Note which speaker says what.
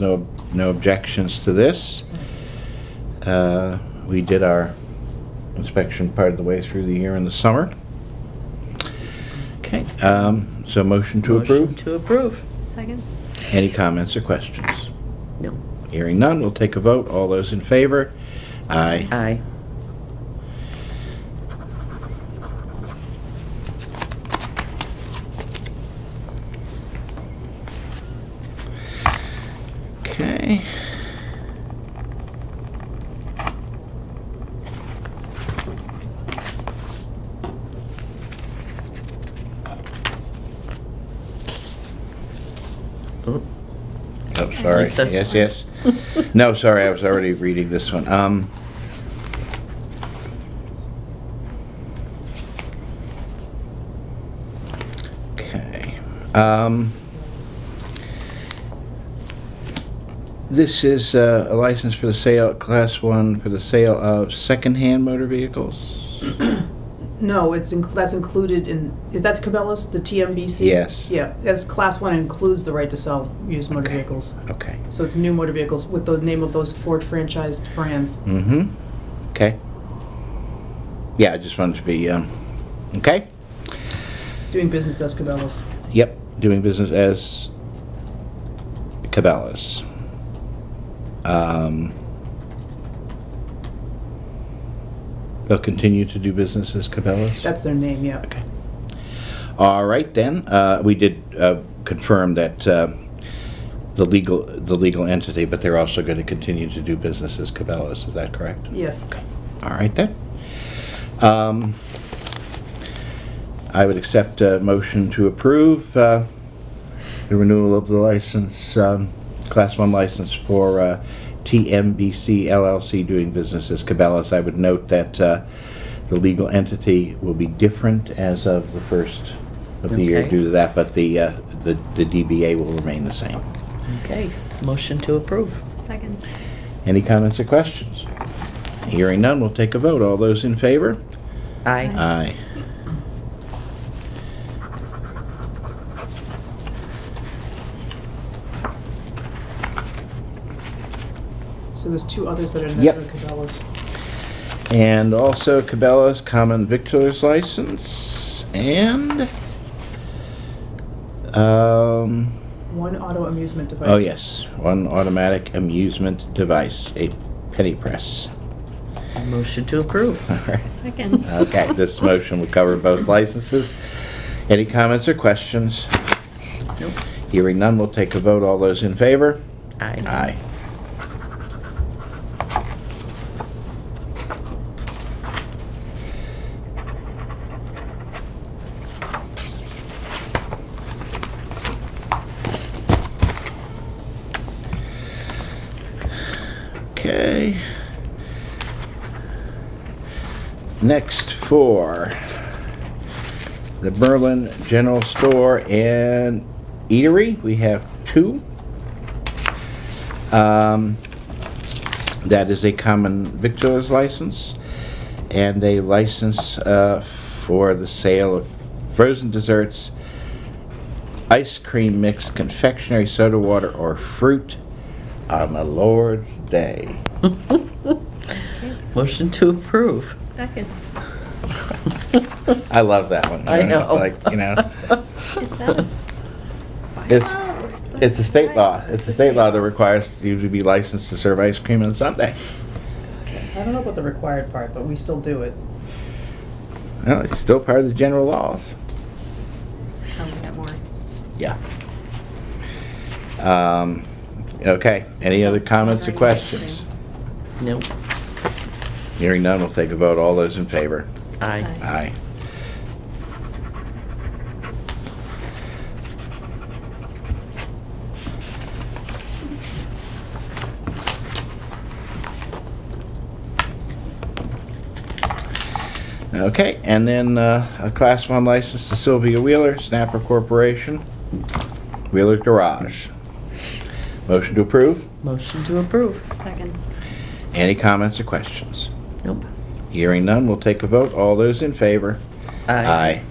Speaker 1: No, no objections to this. Uh, We did our inspection part of the way through the year in the summer.
Speaker 2: Okay.
Speaker 1: Um, So motion to
Speaker 2: Motion
Speaker 1: approve.
Speaker 2: To approve.
Speaker 3: Second?
Speaker 1: Any comments or questions?
Speaker 2: No.
Speaker 1: Hearing none, we'll take a vote. All those in favor? Aye.
Speaker 2: Aye.
Speaker 1: Okay.
Speaker 2: Oh,
Speaker 1: Oh, sorry.
Speaker 2: Lisa.
Speaker 1: Yes, yes. No, sorry, I was already reading this one. Um, Okay. Um, This is uh, a license for the sale, Class 1, for the sale of secondhand motor vehicles?
Speaker 4: No, it's, in- that's included in, is that Cabela's, the TMBC?
Speaker 1: Yes.
Speaker 4: Yeah, that's class one includes the right to sell used motor
Speaker 1: Okay.
Speaker 4: vehicles.
Speaker 1: Okay.
Speaker 4: So it's new motor vehicles with the name of those Ford franchised brands.
Speaker 1: Mm-hmm. Okay. Yeah, I just wanted to be, um, okay?
Speaker 4: Doing business as Cabela's.
Speaker 1: Yep, doing business as Cabela's. Um, they'll continue to do business as Cabela's.
Speaker 4: That's their name, yeah.
Speaker 1: Okay. All right then. Uh, we did uh, confirm that uh, the legal the legal entity, but they're also going to continue to do business as Cabela's. Is that correct?
Speaker 4: Yes.
Speaker 1: All right then. Um, I would accept a motion to approve uh, the renewal of the license, um, Class 1 license for uh, TMBC LLC doing business as Cabela's. I would note that uh, the legal entity will be different as of the first of the year
Speaker 2: Okay.
Speaker 1: due to that, but the, uh, the the DBA will remain the same.
Speaker 2: Okay. Motion to approve.
Speaker 3: Second.
Speaker 1: Any comments or questions? Hearing none, we'll take a vote. All those in favor?
Speaker 2: Aye.
Speaker 1: Aye.
Speaker 4: So there's two others that are
Speaker 1: Yep.
Speaker 4: under Cabela's.
Speaker 1: And also Cabela's common victualler's license and um,
Speaker 4: One auto amusement device.
Speaker 1: oh yes, one automatic amusement device, a penny press.
Speaker 2: Motion to approve.
Speaker 1: All right.
Speaker 3: Second.
Speaker 1: Okay, this motion will cover both licenses. Any comments or questions?
Speaker 2: Nope.
Speaker 1: Hearing none, we'll take a vote. All those in favor?
Speaker 2: Aye.
Speaker 1: Aye. Okay. Next for the Berlin General Store and Eatery, we have two. Um, That is a common victualler's license and a license uh, for the sale of frozen desserts, ice cream mix, confectionery, soda water, or fruit on the Lord's Day.
Speaker 3: Okay.
Speaker 2: Motion to approve.
Speaker 3: Second.
Speaker 1: I love that one.
Speaker 2: I know.
Speaker 1: It's like, you know,
Speaker 3: Is that?
Speaker 1: It's-
Speaker 3: Wow, is that-
Speaker 1: it's a state law. It's a state law that requires you to be licensed to serve ice cream on Sunday.
Speaker 4: I don't know about the required part, but we still do it.
Speaker 1: Well, it's still part of the general laws.
Speaker 3: Tell me that Oh, more.
Speaker 1: Yeah. Um, okay, any other comments or
Speaker 3: Ordering
Speaker 1: questions?
Speaker 3: ice
Speaker 2: No.
Speaker 1: Hearing none, we'll take a vote. All those in favor?
Speaker 2: Aye.
Speaker 1: Aye.
Speaker 3: Aye.
Speaker 1: Okay, and then uh, a Class 1 license to Sylvia Wheeler, Snapper Corporation, Wheeler Garage. Motion to approve?
Speaker 2: Motion to approve.
Speaker 3: Second.
Speaker 1: Any comments or questions?
Speaker 2: Nope.
Speaker 1: Hearing none, we'll take a vote. All those in favor? Aye.